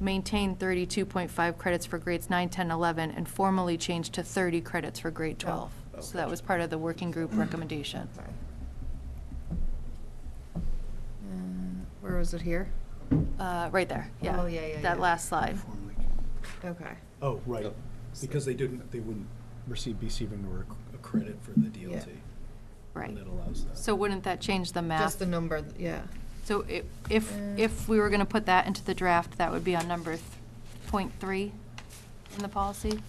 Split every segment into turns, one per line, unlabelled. maintain 32.5 credits for grades 9, 10, 11, and formally change to 30 credits for grade
Oh.
12. So that was part of the working group recommendation.
Mm-hmm. Sorry. Uh, Where was it here?
Uh, Right there, yeah.
Oh, yeah, yeah,
That
yeah.
last slide.
Okay.
Oh, right, because they didn't, they wouldn't receive, be receiving a credit for the DLT.
Right.
And that allows that.
So wouldn't that change the math?
Just the number, th- yeah.
So i- if,
Uh.
if we were going to put that into the draft, that would be on number th- point three in the policy?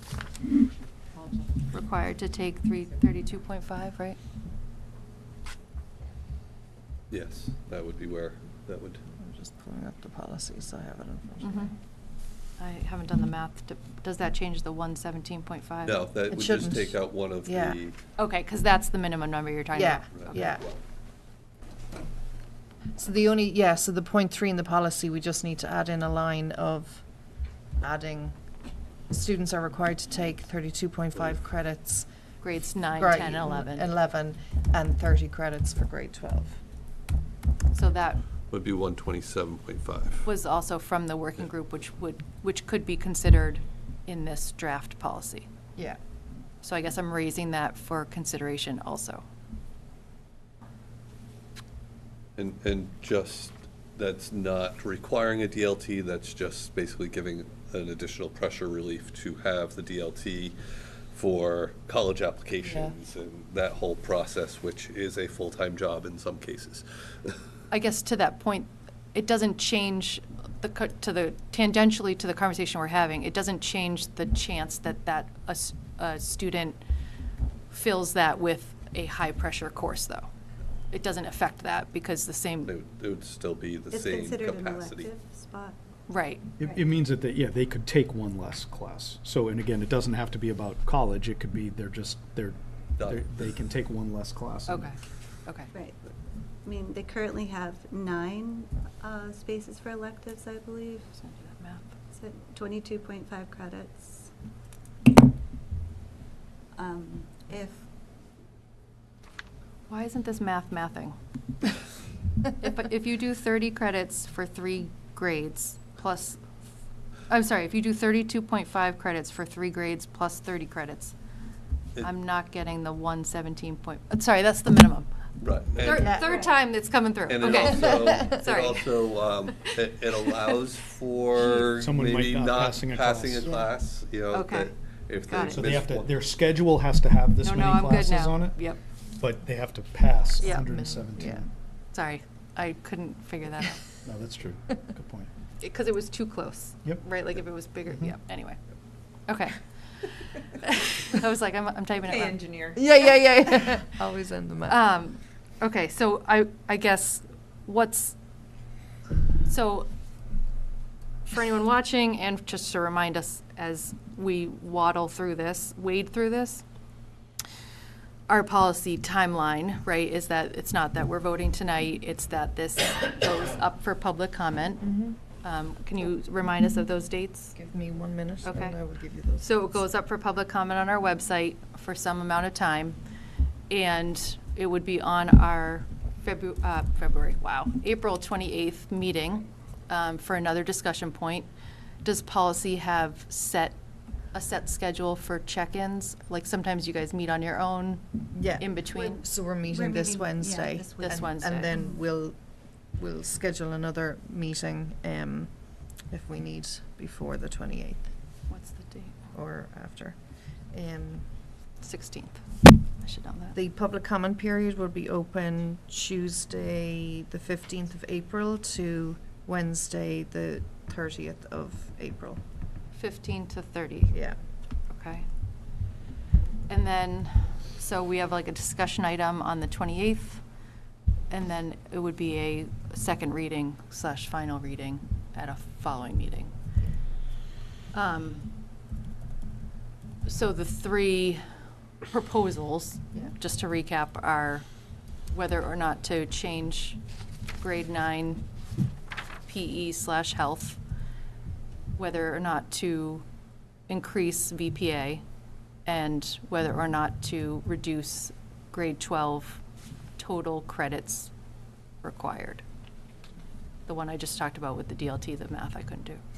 Required to take three, 32.5, right?
Yes, that would be where, that would,
I'm just pulling up the policy, so I have it in front of
Mhm.
me.
I haven't done the math. to- Does that change the 117.5?
no, that
It
would just
shouldn't.
take out one of
Yeah.
the.
Okay, because that's the minimum number you're talking about.
Yeah,
Okay.
yeah. So the only, yeah, so the point three in the policy, we just need to add in a line of adding, students are required to take thirty-two point five credits.
Grades nine,
grade
10, 11.
Eleven, and thirty credits for grade twelve.
So that
Would be one twenty-seven point five.
was also from the working group, which would, which could be considered in this draft policy.
Yeah.
So I guess I'm raising that for consideration also.
And, and just, that's not requiring a DLT, that's just basically giving an additional pressure relief to have the DLT for college applications and that whole process, which is a full-time job in some cases.
I guess to that point, it doesn't change the, co- to the, tangentially to the conversation we're having, it doesn't change the chance that that, a, s- a student fills that with a high-pressure course, though. It doesn't affect that because the
It
same,
would, it would still be the
It's
same
considered an
capacity.
elective spot.
right,
It, it means that, they- yeah, they could take one less class. So, and again, it doesn't have to be about college, it could be they're just, they're,
Done.
they're- they can take one less class. and-
okay, okay.
Right. I mean, they currently have nine uh, spaces for electives, I believe.
Just gonna do that math.
So twenty-two point five credits. Um, If,
Why isn't this math mathing? If, if you do 30 credits for three grades plus, I'm sorry, if you do 32.5 credits for three grades plus 30 credits,
It-
I'm not getting the 117 point, uh, sorry, that's the minimum.
Right.
Third,
And-
third time it's coming through,
And it
okay.
also, it
Sorry.
also, um, it, it allows for
Someone might
maybe
not
not
passing a
passing a
class. Yeah.
class, you know,
Okay.
that if
Got
they
it.
So they have
missed
to,
one.
their schedule has to have this
No,
many
no, I'm good
classes on
now.
it.
Yep,
But they have to pass
Yeah.
hundred
Yeah.
and seventeen.
sorry, I couldn't figure that out,
No, that's true. Good point.
because it was too close.
Yep.
Right, like if it was bigger,
Mhm.
yep, anyway, okay. I was like, I'm, I'm typing it
Hey,
wrong.
engineer.
Yeah, yeah, yeah. Always end the math.
Um, okay, so I, I guess what's, so for anyone watching and just to remind us as we waddle through this, wade through this, our policy timeline, right, is that it's not that we're voting tonight, it's that this goes up for public comment. Um, can you remind us of those dates?
Mm-hmm. Give me one minute,
Okay.
and I will give you those.
So it goes up for public comment on our website for some amount of time, and it would be on our February, uh, February, wow, April 28th meeting um, for another discussion point. Does policy have set, a set schedule for check-ins? Like sometimes you guys meet on your own
Yeah.
in between?
So we're meeting this
meeting- yeah,
Wednesday.
this
This
and-
Wednesday.
And then we'll, we'll schedule another meeting um, if we need before the 28th
What's the date?
or after. Um,
16th. I should know that.
The public comment period will be open Tuesday, the 15th of April to Wednesday, the 30th of April.
15 to 30.
Yeah.
Okay. And then, so we have like a discussion item on the 28th, and then it would be a second reading slash final reading at a following meeting. Um, So the three proposals,
Yeah.
just to recap, are whether or not to change grade nine PE slash health, whether or not to increase VPA, and whether or not to reduce grade 12 total credits required. The one I just talked about with the DLT, the math I couldn't do.